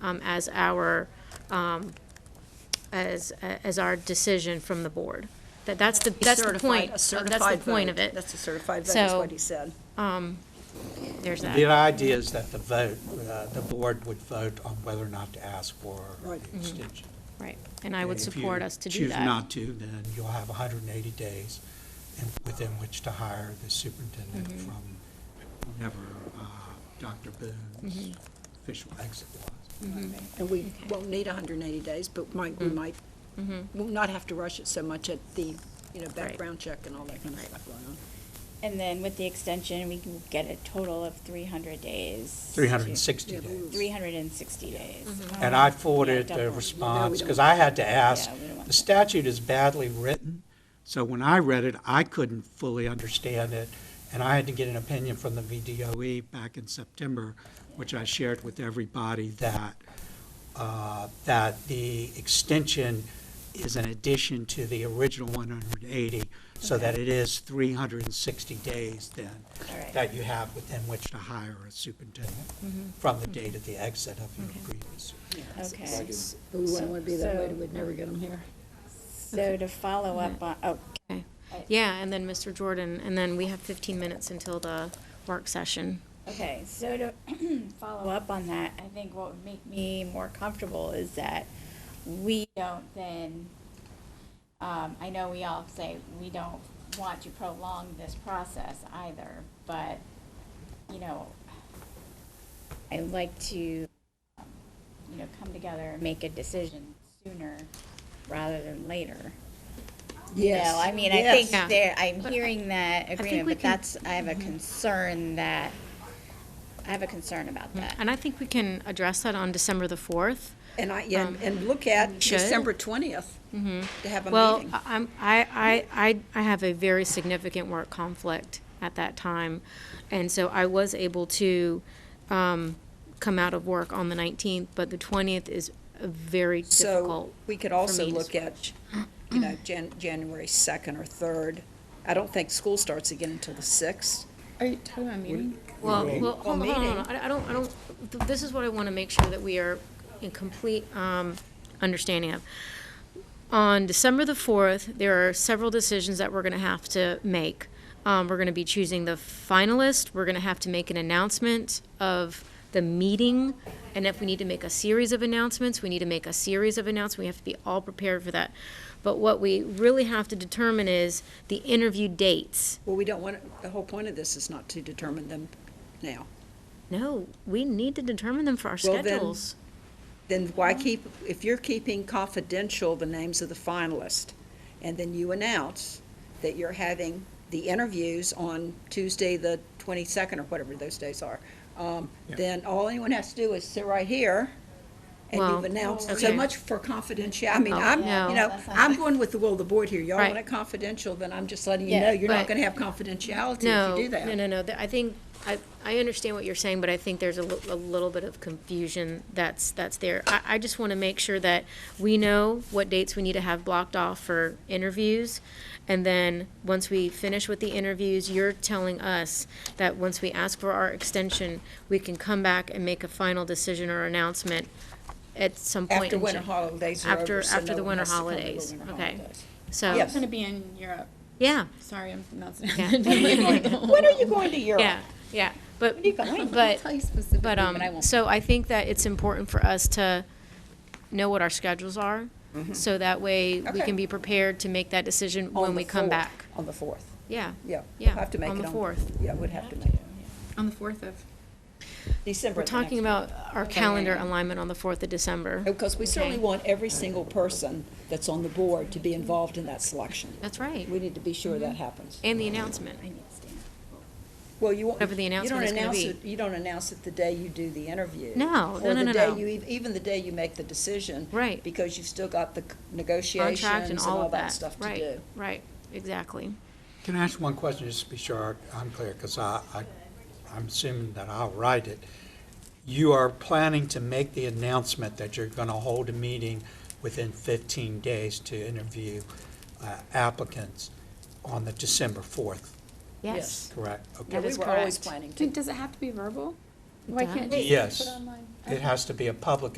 um, as our, um, as, as our decision from the board. That, that's the, that's the Certified- point, uh, a that's the certified point of vote. it. That's a certified vote, is So- what he said. There's The that. idea is that the vote, uh, the board would vote on whether or not to ask for Right. Mm-hmm. the extension. Right. And I would If you support us to do that. Choose not to, then you'll have 180 days in- within which to hire the superintendent Mm-hmm. from whenever uh, Dr. Mm-hmm. Boone's official exit was. And we won't need 180 days, but might, Mm-hmm. we might, we'll not have to rush it so much at the, you know, background check and all that kind of stuff going on. And then with the extension, we can get a total of three hundred days. 360 Yeah, but we days. Three hundred and sixty days. And Um, I yeah, forwarded the double. response, because I had to ask, Yeah, we don't want the that. statute is badly written, so when I read it, I couldn't fully understand it, and I had to get an opinion from the VDOE E back in September, which I shared with everybody, that, uh, that the extension is an addition to the original 180, so that it is 360 days then, All right. that you have within which to hire a superintendent from the date of the exit of your previous superintendent. Okay, We wouldn't want to be that way, So- we'd never get them here. so to follow up on, oh, Yeah, and then Mr. Jordan, and then we have 15 minutes until the work session. Okay, so to follow up on that, I think what would make me more comfortable is that we don't then, um, I know we all say we don't want to prolong this process either, but, you know, I like to, um, you know, come together and make a decision sooner rather than later. Yes. No, I mean, I Yes. think Yeah. there, I'm hearing that think agreement, we but can- Mm-hmm. that's, I have a concern that, I have a concern about that. And I think we can address that on December the 4th. And I, yeah, and look at um, should. Mm-hmm. December 20th to have a Well, uh, meeting. I- I'm, I, I, I- I have a very significant work conflict at that time. And so I was able to, um, come out of work on the nineteenth, but the twentieth is a very So difficult. we could also me to look at, you know, Jan, January 2nd or 3rd. I don't think school starts again until the 6th. Are you talking about meeting? Well, well, hold on, hold on, hold meeting. on. I, I don't, I don't, th- this is what I want to make sure that we are in complete, um, understanding of. On December the fourth, there are several decisions that we're going to have to make. Um, we're going to be choosing the finalist. We're going to have to make an announcement of the meeting. And if we need to make a series of announcements, we need to make a series of announcements. We have to be all prepared for that. But what we really have to determine is the interview dates. Well, we don't want, the whole point of this is not to determine them now. No, we need to determine them for our Well, then- schedules. Then why keep, if you're keeping confidential the names of the finalists, and then you announce that you're having the interviews on Tuesday, the 22nd, or whatever those days are, um, then all anyone has to do is sit right here, and Well, you've announced so okay. Oh, much for confidentiality. I mean, I'm, no. you know, I'm going with the will of the board here. Y'all Right. want it confidential, then I'm just letting you Yeah. know, you're not But- gonna have confidentiality No, if you do that. no, no, no. Th- I think, I, I understand what you're saying, but I think there's a, li- a little bit of confusion that's, that's there. I, I just want to make sure that we know what dates we need to have blocked off for interviews. And then, once we finish with the interviews, you're telling us that once we ask for our extension, we can come back and make a final decision or announcement at some point. After in winter Jan- holidays are After- over, so after no the one winter has to come to the holidays, winter okay. holidays. So, I'm gonna be in Europe. yeah, Sorry, I'm not. When are you going to Europe? yeah, yeah. But, but, Tell you specifically, But, um, I won't. so I think that it's important for us to know what our schedules are, so that way we Mm-hmm. Okay. can be prepared to make that decision when On we the come fourth. back. On the fourth, Yeah, yeah. yeah, Have to make it on the fourth. Yeah, we'd have to make it. On the fourth of. December. We're talking about our calendar alignment on the fourth of December. Because Oh, we certainly Okay. want every single person that's on the board to be involved in that selection. That's right, We need to be sure that happens. and the announcement. I need to stand. Well, you won't. Whatever the you don't announcement is gonna announce be. it- You don't announce it the day you do the interview. No, no, no, Or the no, day no. you, ev- even the day you make the decision. Right. Because you've still got the c- negotiations Contract and and all all of that that, stuff to do. right, right, exactly. Can I ask one question, just to be sure I'm clear, because I, I, I'm assuming that I'll write it. You are planning to make the announcement that you're gonna hold a meeting within fifteen days to interview uh, applicants on the December fourth, Yes, correct? Yeah, That Okay. we is were always correct. planning to. Does it have to be verbal? Why can't you just put Yes, it online? it has to be a public